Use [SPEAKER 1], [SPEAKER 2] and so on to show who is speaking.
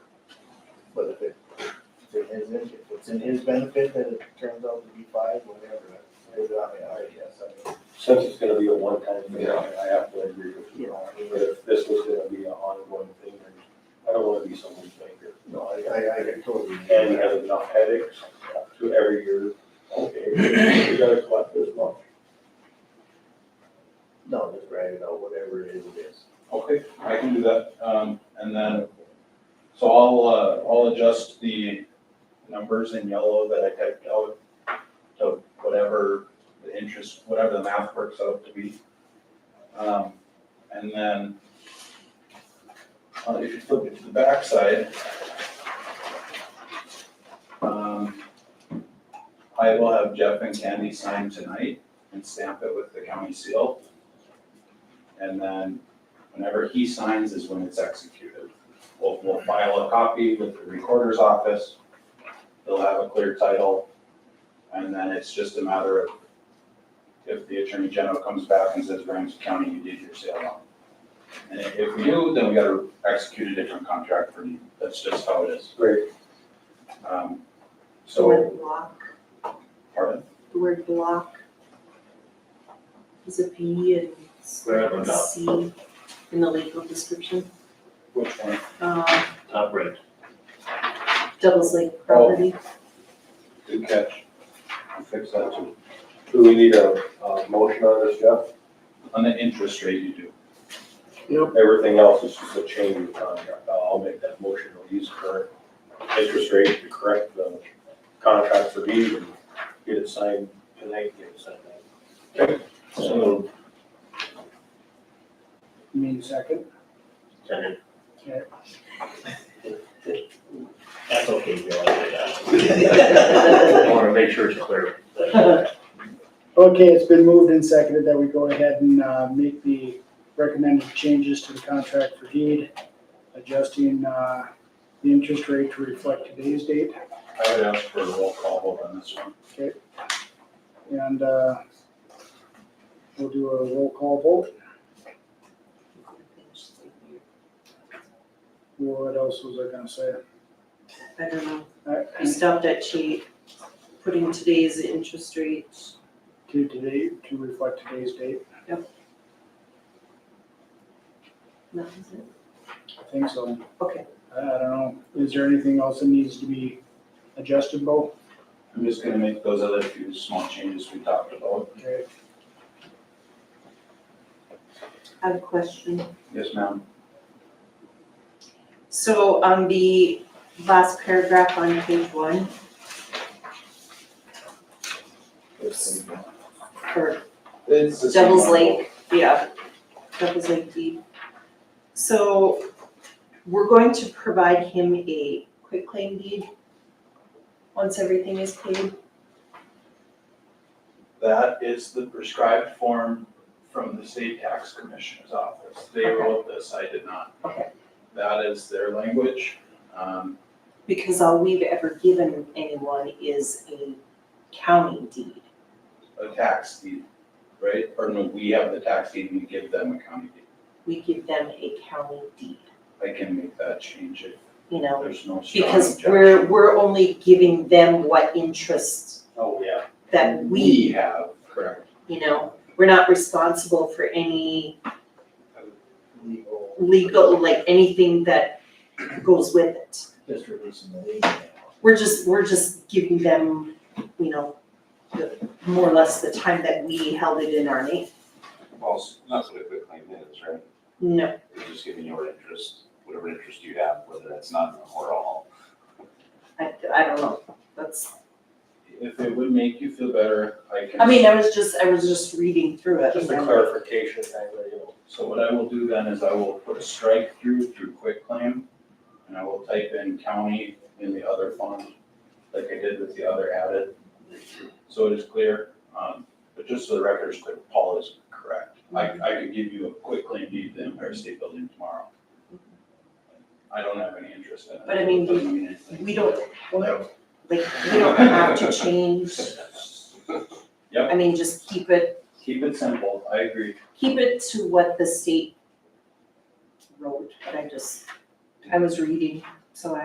[SPEAKER 1] But if it, if it is, if it's in his benefit that it turns out to be five, whatever, that's- it's not my idea, so.
[SPEAKER 2] Since it's gonna be a one-time thing,
[SPEAKER 3] Yeah.
[SPEAKER 2] I have to agree with you. But if this was gonna be an ongoing thing, then I don't wanna be someone's banker.
[SPEAKER 1] No, I, I, I can totally.
[SPEAKER 2] And we have enough headaches to every year, okay, we gotta collect this much.
[SPEAKER 1] No, just write it out, whatever it is, it is.
[SPEAKER 4] Okay, I can do that, um, and then, so I'll, uh, I'll adjust the numbers in yellow that I typed out to whatever the interest, whatever the math works out to be. Um, and then, uh, if you flip it to the backside, um, I will have Jeff and Candy sign tonight and stamp it with the county seal. And then whenever he signs is when it's executed. We'll, we'll file a copy with the recorder's office. They'll have a clear title. And then it's just a matter of if the attorney general comes back and says, Ramsey County, you did your sale wrong. And if if we do, then we gotta execute a different contract for you. That's just how it is.
[SPEAKER 2] Great.
[SPEAKER 4] Um,
[SPEAKER 5] The
[SPEAKER 4] so,
[SPEAKER 5] word block,
[SPEAKER 4] pardon?
[SPEAKER 5] the word block is a B and it's
[SPEAKER 3] Where am I
[SPEAKER 5] a
[SPEAKER 3] now?
[SPEAKER 5] C in the legal description.
[SPEAKER 4] Which one?
[SPEAKER 5] Uh,
[SPEAKER 3] Top red.
[SPEAKER 5] Devil's Lake property,
[SPEAKER 4] Good catch. I'll fix that too.
[SPEAKER 2] Do we need a, a motion on this, Jeff?
[SPEAKER 4] On the interest rate you do.
[SPEAKER 2] Everything else is just a change in contract. I'll I'll make that motion. We'll use current interest rate to correct the contract for these and get it signed tonight, get it signed.
[SPEAKER 3] So,
[SPEAKER 6] You mean second?
[SPEAKER 3] second.
[SPEAKER 6] Okay.
[SPEAKER 3] That's okay, Bill, I did that. I
[SPEAKER 1] Yeah.
[SPEAKER 3] wanna make sure it's clear. That's-
[SPEAKER 6] Okay, it's been moved and seconded that we go ahead and uh, make the recommended changes to the contract for deed, adjusting uh, the interest rate to reflect today's date.
[SPEAKER 4] I would ask for a roll call vote on this one.
[SPEAKER 6] And uh, we'll do a roll call vote.
[SPEAKER 4] Oh.
[SPEAKER 6] What else was I gonna say?
[SPEAKER 5] I don't know, I
[SPEAKER 6] Uh,
[SPEAKER 5] stopped at she putting today's interest rate.
[SPEAKER 6] To today, to reflect today's date,
[SPEAKER 5] That was it.
[SPEAKER 6] I think so.
[SPEAKER 5] Okay,
[SPEAKER 6] I I don't know, is there anything else that needs to be adjusted, Bo?
[SPEAKER 4] I'm just gonna make those other few small changes we talked about.
[SPEAKER 6] Okay,
[SPEAKER 5] I have a question.
[SPEAKER 4] Yes, ma'am.
[SPEAKER 5] So on the last paragraph on page one,
[SPEAKER 1] It's-
[SPEAKER 5] or
[SPEAKER 4] It's the same
[SPEAKER 5] Devil's
[SPEAKER 4] one.
[SPEAKER 5] Lake, yeah, Devil's Lake deed. So we're going to provide him a quitclaim deed once everything is paid.
[SPEAKER 4] That is the prescribed form from the state tax commissioner's office. They
[SPEAKER 5] Okay.
[SPEAKER 4] wrote this, I did not.
[SPEAKER 5] Okay.
[SPEAKER 4] That is their language. Um,
[SPEAKER 5] Because all we've ever given anyone is a county deed.
[SPEAKER 4] a tax deed, right? Or no, we have the tax deed and we give them a county deed.
[SPEAKER 5] We give them a county deed,
[SPEAKER 4] I can make that change if
[SPEAKER 5] you know?
[SPEAKER 4] there's no strong objection.
[SPEAKER 5] Because we're, we're only giving them what interest
[SPEAKER 2] Oh, yeah.
[SPEAKER 5] that we,
[SPEAKER 4] We have, correct.
[SPEAKER 5] you know? We're not responsible for any
[SPEAKER 1] Legal.
[SPEAKER 5] legal, like anything that goes with it.
[SPEAKER 1] Just releasing the legal.
[SPEAKER 5] we're just, we're just giving them, you know, the, more or less the time that we held it in our name.
[SPEAKER 7] Well, it's- that's what a quit claim is, right?
[SPEAKER 5] No,
[SPEAKER 7] It's just giving your interest, whatever interest you have, whether that's none or all.
[SPEAKER 5] I, I don't know, that's,
[SPEAKER 4] If it would make you feel better, I can.
[SPEAKER 5] I mean, I was just, I was just reading through it.
[SPEAKER 2] Just a clarification thing, you know.
[SPEAKER 4] So what I will do then is I will put a strike through through quick claim, and I will type in county in the other font, like I did with the other added. So it is clear, um, but just so the record is clear, Paul is correct. I, I could give you a quick claim deed to the Empire State Building tomorrow. I don't have any interest in it.
[SPEAKER 5] But I mean, we-
[SPEAKER 4] Doesn't mean anything.
[SPEAKER 5] We don't,
[SPEAKER 4] Yep.
[SPEAKER 5] like, we don't have to change,
[SPEAKER 4] Yep,
[SPEAKER 5] I mean, just keep it,
[SPEAKER 4] keep it simple, I agree.
[SPEAKER 5] keep it to what the state wrote, but I just, I was reading, so I.